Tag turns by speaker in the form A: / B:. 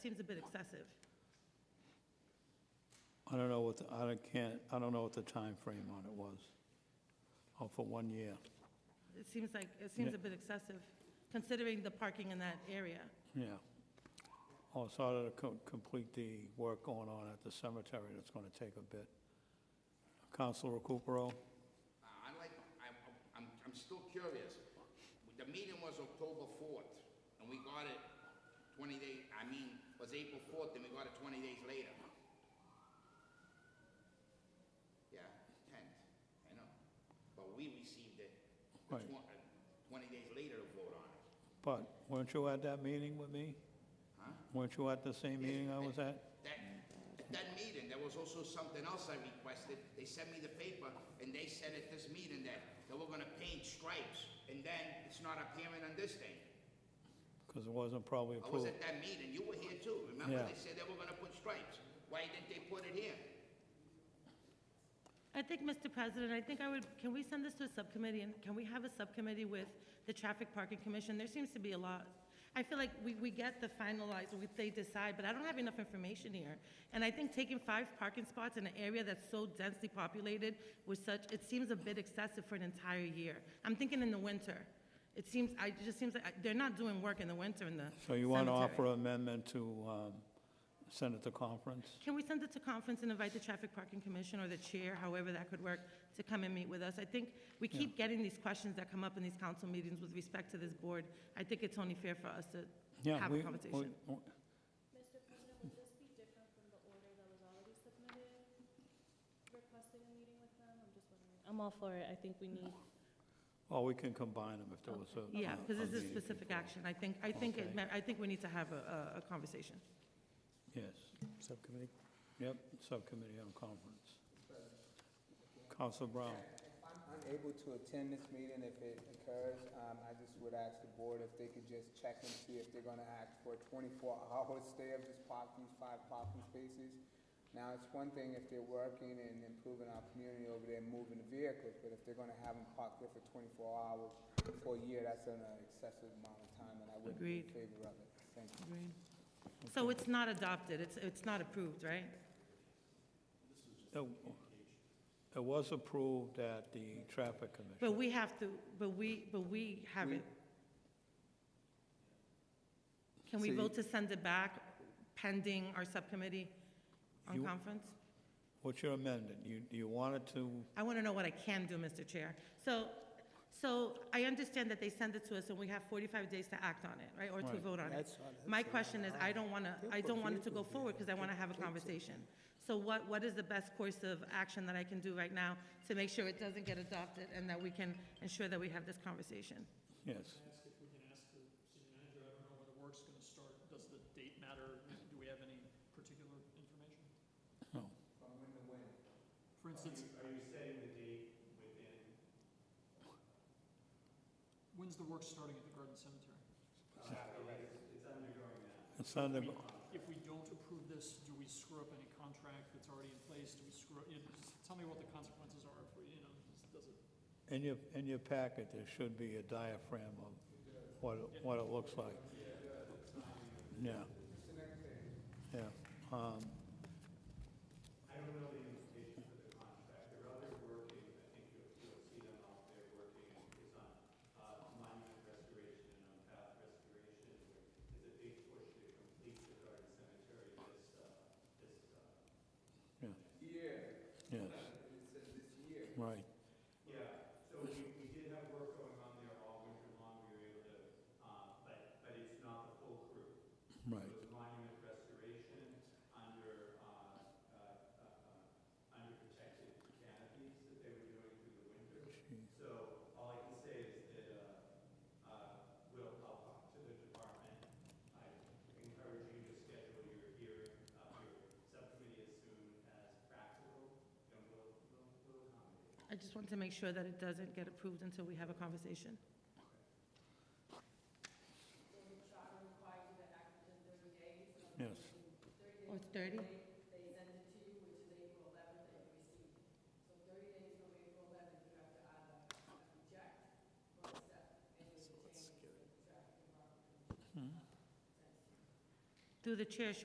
A: Seems a bit excessive.
B: I don't know what, the- I don't- can't, I don't know what the time frame on it was. Oh, for one year.
A: It seems like, it seems a bit excessive, considering the parking in that area.
B: Yeah. Also, I ought to co- complete the work going on at the cemetery, that's gonna take a bit. Counselor Recupero?
C: Uh, I'd like, I'm, I'm, I'm still curious. The meeting was October fourth, and we got it twenty days, I mean, was April fourth, and we got it twenty days later. Yeah, tenth, I know. But we received it the
B: Right.
C: twen- uh, twenty days later to vote on it.
B: But weren't you at that meeting with me?
C: Huh?
B: Weren't you at the same meeting I was at?
C: That, that meeting, there was also something else I requested. They sent me the paper, and they said at this meeting that they were gonna paint stripes, and then it's not appearing on this thing.
B: Because it wasn't probably
C: I was
B: approved.
C: at that meeting, you were here too, remember?
B: Yeah.
C: They said they were gonna put stripes. Why didn't they put it here?
A: I think, Mr. President, I think I would, can we send this to a subcommittee, and can we have a subcommittee with the Traffic Parking Commission? There seems to be a lot. I feel like we, we get the finalized, what they decide, but I don't have enough information here. And I think taking five parking spots in an area that's so densely populated with such, it seems a bit excessive for an entire year. I'm thinking in the winter. It seems, I, it just seems like, I- they're not doing work in the winter in the
B: So you want to
A: cemetery.
B: offer amendment to um, send it to conference?
A: Can we send it to conference and invite the Traffic Parking Commission or the chair, however that could work, to come and meet with us? I think we keep getting these questions that come up in these council meetings with respect to this board. I think it's only fair for us to
B: Yeah,
A: have
B: we-
A: a
B: we-
A: conversation.
B: we-
D: Mr. President, would this be different from the order that was already submitted requesting a meeting with them? I'm just wondering. I'm all for it. I think we need.
B: Or we can combine them if there was a...
A: Yeah,
B: a-
A: because
B: a
A: this is
B: meeting
A: specific
B: before.
A: action. I think, I think, it
B: Oh, Okay.
A: ma- I think we need to have a, a- a conversation.
B: Yes. Subcommittee? Yep, subcommittee on conference. Counselor Brown?
E: I'm unable to attend this meeting if it occurs. Um, I just would ask the board if they could just check and see if they're gonna ask for a twenty-four hour stay of this park, these five parking spaces. Now, it's one thing if they're working and improving our community over there, and moving the vehicles, but if they're gonna have them parked there for twenty-four hours for a year, that's an excessive amount of time, and I wouldn't be in
A: Agreed.
E: favor of it. Thank you.
A: So it's not adopted, it's, it's not approved, right?
B: It it was approved at the traffic commission.
A: But we have to, but we, but we have it. Can we
E: So you-
A: vote to send it back pending our subcommittee on
B: You-
A: conference?
B: What's your amendment? You, you wanted to,
A: I want to know what I can do, Mr. Chair. So, so I understand that they send it to us and we have 45 days to act on it, right, or to
B: Right.
A: vote on it. My question is, I don't want to, I don't want it to go forward because I want to have a conversation. So what, what is the best course of action that I can do right now to make sure it doesn't get adopted and that we can ensure that we have this conversation?
B: yes.
F: ask if we can ask the city manager, I don't know where the work's gonna start, does the date matter, do we have any particular information?
B: No.
F: For instance,
G: Are you setting the date within,
F: when's the work starting at the Garden Cemetery?
G: it's undergoing that?
B: It's under,
F: If we don't approve this, do we screw up any contract that's already in place, do we screw, up- you know, just tell me what the consequences are if we, you know, just- does it,
B: in your, in your packet, there should be a diaphragm of what, it- what it looks like. Yeah. Yeah. Um,
G: I don't know the implications of the contract, they're out there working, I think you'll, you'll see them out there working, it's on, uh, monument restoration and on path restoration, where it's a big push to complete the garden cemetery this, uh, this, uh,
B: Yes. Right.
G: Yeah, so we, we did have work going on there all winter long, we were able to, uh, but, but it's not the full crew.
B: Right.
G: So it's monument restoration under, uh, uh, uh, uh, under protected canopies that they were doing through the winter. So all I can say is that, uh, uh, we'll, I'll talk to the department. I encourage you to schedule your hearing, uh, your subcommittee as soon as practical, and we'll, we'll, we'll accommodate.
A: I just want to make sure that it doesn't get approved until we have a conversation.
B: Yes.
A: Oh, it's 30? They through the chair,